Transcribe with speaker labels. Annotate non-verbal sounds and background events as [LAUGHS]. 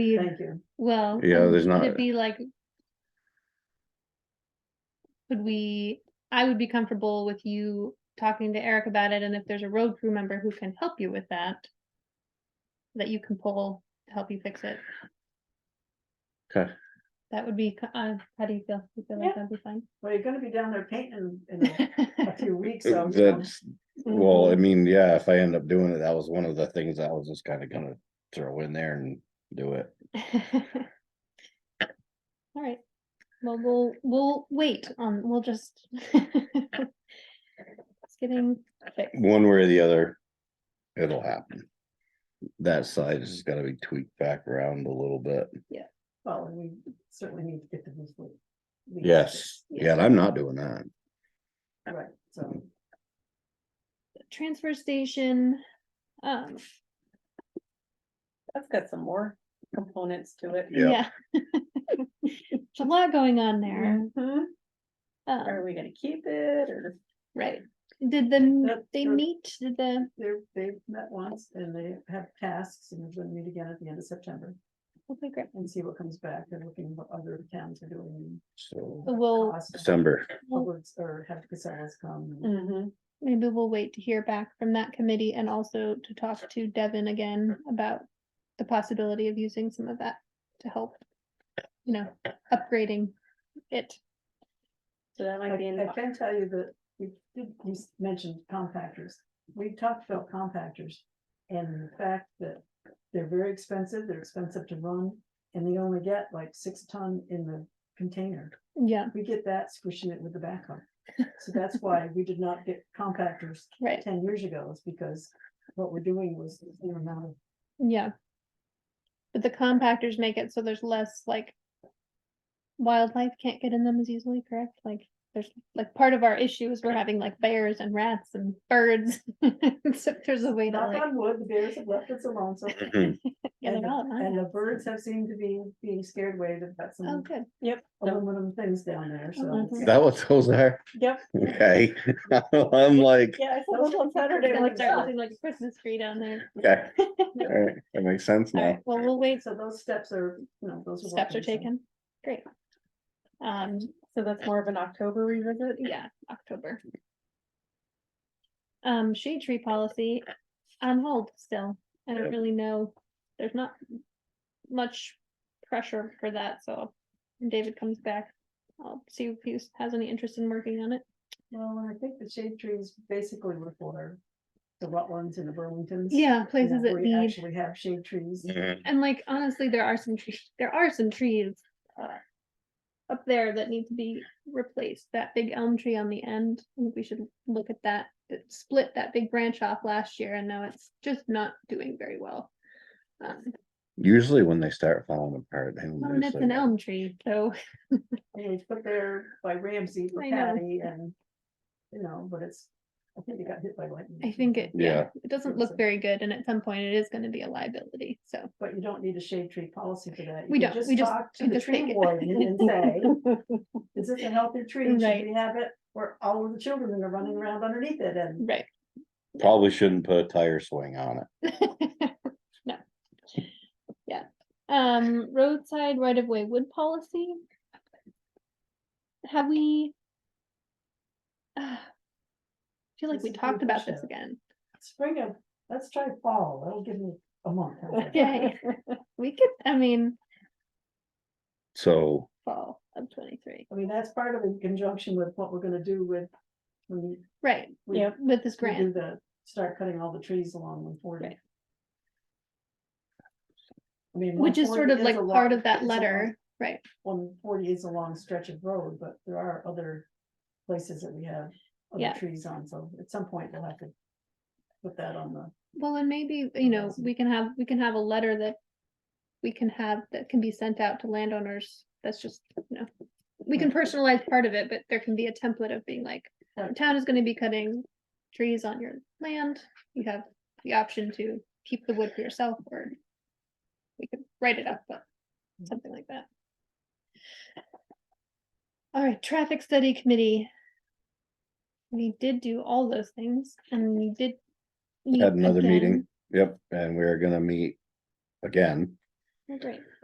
Speaker 1: be,
Speaker 2: Thank you.
Speaker 1: well.
Speaker 3: Yeah,
Speaker 1: um,
Speaker 3: there's
Speaker 1: Could
Speaker 3: not-
Speaker 1: it be like? Could we, I would be comfortable with you talking to Eric about it, and if there's a road crew member who can help you with that. That you can pull to help you fix it.
Speaker 3: Okay.
Speaker 1: That would be, co- uh, how do you feel? You feel
Speaker 2: Yeah.
Speaker 1: like that'd be
Speaker 2: [LAUGHS]
Speaker 1: fine?
Speaker 2: Well, you're gonna be down there painting in
Speaker 1: [LAUGHS]
Speaker 2: a- a few weeks, so. you know.
Speaker 3: That's, well, I mean, yeah, if I end up doing it, that was one of the things I was just kinda gonna throw in there and do it.
Speaker 1: All right, well, we'll, we'll wait, um, we'll just. [LAUGHS] It's getting fixed.
Speaker 3: One way or the other, it'll happen. That side is gotta be tweaked back around a little bit.
Speaker 2: Well, and we certainly need to get the roof. leak- leak
Speaker 3: Yes, yeah, and I'm not doing that.
Speaker 2: fixed. Right, so,
Speaker 1: transfer station, um,
Speaker 4: That's got some more components to it.
Speaker 3: Yeah.
Speaker 1: yeah. [LAUGHS] There's a lot going on there,
Speaker 4: Mhm. Are
Speaker 1: um,
Speaker 4: we gonna keep it or?
Speaker 1: right, did the,
Speaker 2: Yep,
Speaker 1: they
Speaker 2: sure.
Speaker 1: meet, did the,
Speaker 2: they're, they've met once and they have tasks and we're gonna meet again at the end of September
Speaker 1: okay, great,
Speaker 2: and see what comes back and looking what other towns are doing.
Speaker 3: So
Speaker 1: So we'll,
Speaker 2: cost,
Speaker 3: December,
Speaker 2: Publix Or have Casellas come. and-
Speaker 4: Mhm.
Speaker 1: maybe we'll wait to hear back from that committee and also to talk to Devin again about the possibility of using some of that to help, you know, upgrading it.
Speaker 4: So that might be in,
Speaker 2: I I can tell you that we did, you s- mentioned compactors. We talked about compactors and the fact that they're very expensive, they're expensive to run, and they only get like six ton in the container.
Speaker 1: Yeah,
Speaker 2: We get that squishing it with the backhoe. So that's why we did not get compactors
Speaker 1: right,
Speaker 2: ten years ago is because what we're doing was the same amount of
Speaker 1: yeah. But the compactors make it so there's less like wildlife can't get in them as easily, correct? Like, there's, like, part of our issue is we're having like bears and rats and birds. [LAUGHS] So if there's a way to
Speaker 2: knock
Speaker 1: like
Speaker 2: on wood, the bears have left us alone, so.
Speaker 1: get
Speaker 2: And
Speaker 1: it
Speaker 2: the-
Speaker 1: all. out.
Speaker 2: And the birds have seemed to be being scared away. They've got
Speaker 1: Oh,
Speaker 2: some
Speaker 1: good.
Speaker 4: yep, so-
Speaker 2: aluminum things down there, so.
Speaker 1: Mhm.
Speaker 2: it's-
Speaker 3: is that what those are?
Speaker 4: yep,
Speaker 3: Okay, [LAUGHS] I'm like,
Speaker 4: yeah, I saw those on
Speaker 1: Like,
Speaker 4: Saturday. [LAUGHS] when
Speaker 1: start
Speaker 4: I-
Speaker 1: building like a Christmas tree down there.
Speaker 3: okay. Alright, that makes sense
Speaker 1: All
Speaker 3: now.
Speaker 1: right, well, we'll wait,
Speaker 2: So those steps are, you know, those.
Speaker 1: steps are
Speaker 2: working, so.
Speaker 1: taken, great. Um,
Speaker 4: So that's more of an October revisit?
Speaker 1: yeah, October. Um, shade tree policy on hold still, I don't
Speaker 3: Yep.
Speaker 1: really know, there's not much pressure for that, so when David comes back, I'll see if he has any interest in working on it.
Speaker 2: Well, and I think the shade trees basically were for the Rutlands and the Burlingtons. you
Speaker 1: Yeah,
Speaker 2: know,
Speaker 1: places that
Speaker 2: where you
Speaker 1: need,
Speaker 2: Actually have shade trees.
Speaker 3: Mhm.
Speaker 1: and like, honestly, there are some trees, there are some trees uh, up there that need to be replaced, that big elm tree on the end, I think we should look at that, it split that big branch off last year, and now it's just not doing very well. Um,
Speaker 3: Usually when they start falling apart. they
Speaker 1: Well,
Speaker 3: lose
Speaker 1: and it's
Speaker 3: their-
Speaker 1: an elm tree, so,
Speaker 2: And it was put there by Ramsey for
Speaker 1: I know.
Speaker 2: Patty and, you know, but it's, I think it got hit by lightning.
Speaker 1: I
Speaker 2: or
Speaker 1: think it,
Speaker 2: something.
Speaker 1: yeah,
Speaker 3: Yeah.
Speaker 1: it doesn't look
Speaker 2: So-
Speaker 1: very good, and at some point it is gonna be a liability, so.
Speaker 2: But you don't need a shade tree policy for that. You
Speaker 1: We
Speaker 2: can
Speaker 1: don't, we just-
Speaker 2: talk to
Speaker 1: we
Speaker 2: the
Speaker 1: just
Speaker 2: tree
Speaker 1: take it. [LAUGHS]
Speaker 2: warden And say, is this a healthy tree?
Speaker 1: Right.
Speaker 2: Should we have it? Or all of the children are running around underneath it and
Speaker 1: Right.
Speaker 3: Probably shouldn't put a tire swing on it.
Speaker 1: [LAUGHS] No. Yeah, um, roadside right of way wood policy. Have we? [SIGHS] I Feel like
Speaker 2: This
Speaker 1: we
Speaker 2: is a good
Speaker 1: talked about this
Speaker 2: question. [LAUGHS]
Speaker 1: again,
Speaker 2: spring of, let's try fall. That'll give me a month. How's
Speaker 1: [LAUGHS]
Speaker 2: that?
Speaker 1: okay,
Speaker 2: [LAUGHS]
Speaker 1: we could, I mean,
Speaker 3: So,
Speaker 1: fall of twenty-three,
Speaker 2: I mean, that's part of it in conjunction with what we're gonna do with. When we-
Speaker 1: right,
Speaker 2: we,
Speaker 4: Yep.
Speaker 1: with this
Speaker 2: we do
Speaker 1: grant,
Speaker 2: the, start cutting all the trees along one forty.
Speaker 1: Right.
Speaker 2: I mean.
Speaker 1: which is sort
Speaker 2: 140
Speaker 1: of like
Speaker 2: a lo-
Speaker 1: part of that
Speaker 2: is a long-
Speaker 1: letter, right?
Speaker 2: One forty is a long stretch of road, but there are other places that we have
Speaker 1: Yeah.
Speaker 2: other trees on, so at some point we'll have to. Put that on the,
Speaker 1: Well, and maybe, you know,
Speaker 2: Amazing.
Speaker 1: we can have, we can have a letter that we can have, that can be sent out to landowners, that's just, you know. We can personalize part of it, but there can be a template of being like,
Speaker 2: Right.
Speaker 1: town is gonna be cutting trees on your land, you have the option to keep the wood for yourself, or we could write it up, but
Speaker 3: Mm-hmm.
Speaker 1: something like that. All right, traffic study committee. We did do all those things, and we did. meet
Speaker 3: Had another meeting.
Speaker 1: again.
Speaker 3: yep, and we're gonna meet again
Speaker 1: Oh, Great.